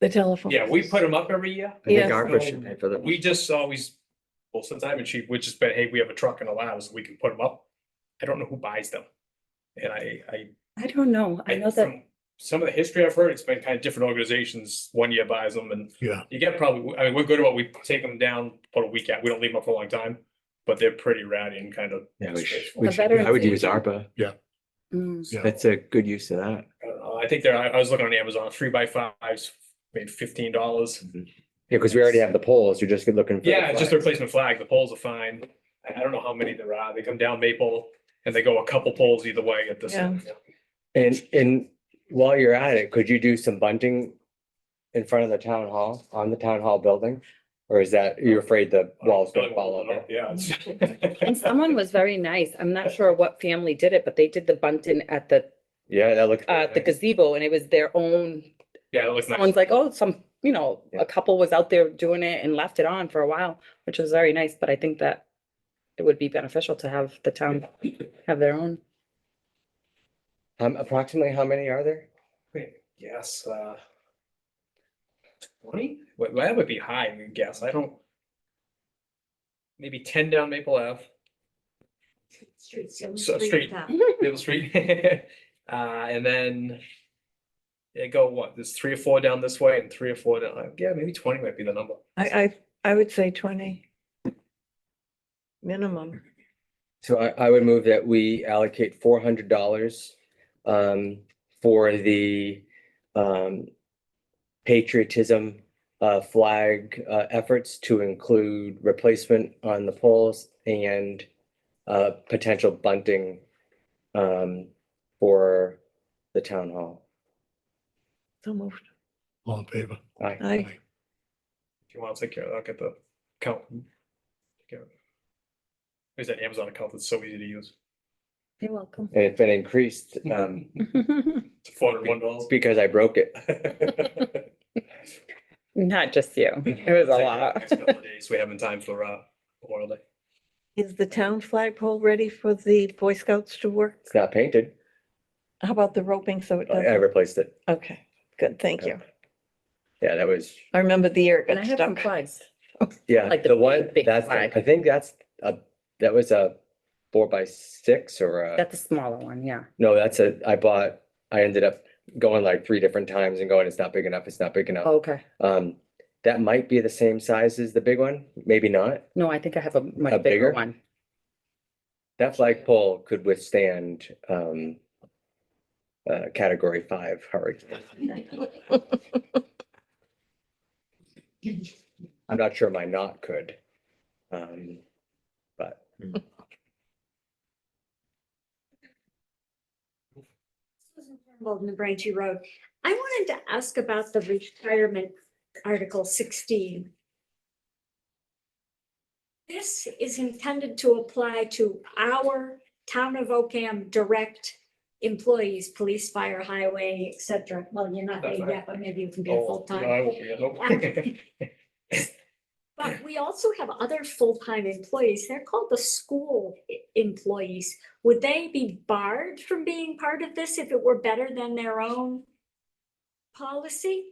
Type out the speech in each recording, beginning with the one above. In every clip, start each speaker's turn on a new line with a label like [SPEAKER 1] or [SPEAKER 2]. [SPEAKER 1] the telephone.
[SPEAKER 2] Yeah, we put them up every year.
[SPEAKER 3] I think
[SPEAKER 1] Yes.
[SPEAKER 3] ARPA should pay for
[SPEAKER 2] So
[SPEAKER 3] them.
[SPEAKER 2] We just always, well, since I'm a chief, we just been, hey, we have a truck and allows, we can put them up. I don't know who buys them. And I, I.
[SPEAKER 1] I don't know. I know that,
[SPEAKER 2] from Some of the history I've heard, it's been kind of different organizations, one year buys them and
[SPEAKER 4] Yeah,
[SPEAKER 2] you get probably, I mean, we're good about, we take them down, put a week out, we don't leave them up for a long time. But they're pretty rowdy and kind of.
[SPEAKER 3] Yeah, we should-
[SPEAKER 2] disgraceful.
[SPEAKER 3] we
[SPEAKER 1] The
[SPEAKER 3] should- I would use ARPA.
[SPEAKER 1] Mm,
[SPEAKER 4] yeah.
[SPEAKER 3] That's a good use of that.
[SPEAKER 2] I don't know, Uh, I think there, I I was looking on Amazon, three by fives, made fifteen dollars.
[SPEAKER 3] Yeah, because we already have the poles. You're just looking. for the
[SPEAKER 2] Yeah, it's just a
[SPEAKER 3] flags.
[SPEAKER 2] replacement flag. The poles are fine. I, I don't know how many there are. They come down Maple and they go a couple poles either way at this.
[SPEAKER 1] Yeah.
[SPEAKER 2] end.
[SPEAKER 3] And, and while you're at it, could you do some bunting in front of the town hall, on the town hall building? Or is that, you're afraid the walls gonna
[SPEAKER 2] Uh,
[SPEAKER 3] fall over?
[SPEAKER 2] Yeah.
[SPEAKER 5] And
[SPEAKER 2] it's-
[SPEAKER 5] someone was very nice. I'm not sure what family did it, but they did the bunting at the,
[SPEAKER 3] Yeah, that looks.
[SPEAKER 5] uh, the gazebo and it was their own.
[SPEAKER 2] Yeah, it looks nice.
[SPEAKER 5] Someone's like, oh, some, you know,
[SPEAKER 3] Yeah.
[SPEAKER 5] a couple was out there doing it and left it on for a while, which was very nice, but I think that it would be beneficial to have the town have their own.
[SPEAKER 3] Um, approximately how many are there?
[SPEAKER 2] Yes, uh. Twenty? Well, that would be high, I guess. I don't. Maybe ten down Maple Ave. So street, Maple Street. Uh, and then. They go, what, there's three or four down this way and three or four down, yeah, maybe twenty might be the number.
[SPEAKER 1] I, I, I would say twenty. Minimum.
[SPEAKER 3] So I, I would move that we allocate four hundred dollars um, for the um, patriotism uh, flag uh, efforts to include replacement on the poles and uh, potential bunting um, for the town hall.
[SPEAKER 1] So moved.
[SPEAKER 4] all in favor.
[SPEAKER 3] Aye.
[SPEAKER 1] I,
[SPEAKER 2] If you want to take care of that, I'll get the account. and take care of it. There's that Amazon account that's so easy to use.
[SPEAKER 5] You're welcome.
[SPEAKER 3] And it's been increased um,
[SPEAKER 2] It's four hundred one dollars.
[SPEAKER 3] because I broke it.
[SPEAKER 5] Not just you. It was a lot.
[SPEAKER 2] Days we have in time for uh Memorial Day.
[SPEAKER 1] is the town flagpole ready for the Boy Scouts to work?
[SPEAKER 3] It's not painted.
[SPEAKER 1] How about the roping so
[SPEAKER 5] Oh,
[SPEAKER 1] it
[SPEAKER 3] I I
[SPEAKER 1] doesn't?
[SPEAKER 3] replaced it.
[SPEAKER 1] Okay, good, thank you.
[SPEAKER 3] Yeah, that was
[SPEAKER 1] I remember the year it
[SPEAKER 5] And I
[SPEAKER 1] got
[SPEAKER 5] have some
[SPEAKER 1] stuck.
[SPEAKER 5] flags.
[SPEAKER 3] Yeah,
[SPEAKER 5] Like the
[SPEAKER 3] the one,
[SPEAKER 5] big, big
[SPEAKER 3] that's,
[SPEAKER 5] flag.
[SPEAKER 3] the- I think that's a, that was a four by six or a,
[SPEAKER 5] That's a smaller one, yeah.
[SPEAKER 3] no, that's a, I bought, I ended up going like three different times and going, it's not big enough, it's not big enough.
[SPEAKER 5] Okay.
[SPEAKER 3] Um, that might be the same size as the big one, maybe not.
[SPEAKER 5] No, I think I have a
[SPEAKER 3] A
[SPEAKER 5] much
[SPEAKER 3] bigger?
[SPEAKER 5] bigger one.
[SPEAKER 3] That flagpole could withstand, um, uh, category five hurricane. I'm not sure my knot could. Um, but
[SPEAKER 6] Susan Turnbull, New Braintree Road. I wanted to ask about the retirement article sixteen. This is intended to apply to our town of Ocam direct employees, police, fire, highway, et cetera. Well, you're not
[SPEAKER 2] That's
[SPEAKER 6] made
[SPEAKER 2] right.
[SPEAKER 6] yet, but maybe you can be a
[SPEAKER 2] Oh, no, I
[SPEAKER 6] full-time.
[SPEAKER 2] won't be here, nope.
[SPEAKER 6] But we also have other full-time employees. They're called the school e- employees. Would they be barred from being part of this if it were better than their own policy?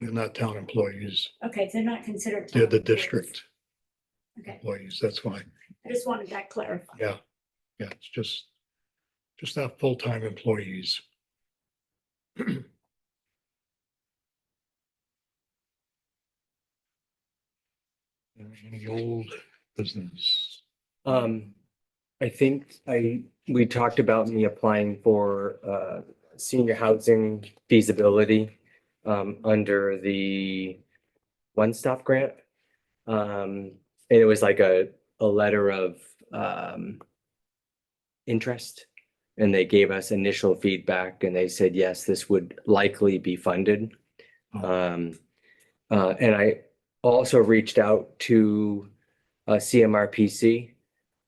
[SPEAKER 4] They're not town employees.
[SPEAKER 6] Okay, they're not considered.
[SPEAKER 4] They're the
[SPEAKER 6] town employees.
[SPEAKER 4] district
[SPEAKER 6] Okay,
[SPEAKER 4] employees. That's why.
[SPEAKER 6] I just wanted that clarified.
[SPEAKER 4] Yeah. Yeah, it's just, just not full-time employees. Any old business?
[SPEAKER 3] Um, I think I, we talked about me applying for, uh, senior housing feasibility, um, under the one-stop grant. Um, and it was like a, a letter of, um, interest. And they gave us initial feedback and they said, yes, this would likely be funded.
[SPEAKER 4] Oh.
[SPEAKER 3] Um, uh, and I also reached out to, uh, CMRPC.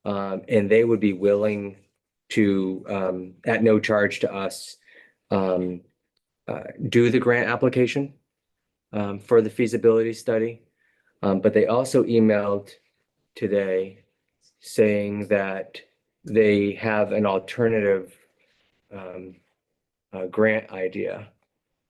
[SPEAKER 3] Um, and they would be willing to, um, at no charge to us, um, uh, do the grant application um, for the feasibility study. Um, but they also emailed today saying that they have an alternative um, uh, grant idea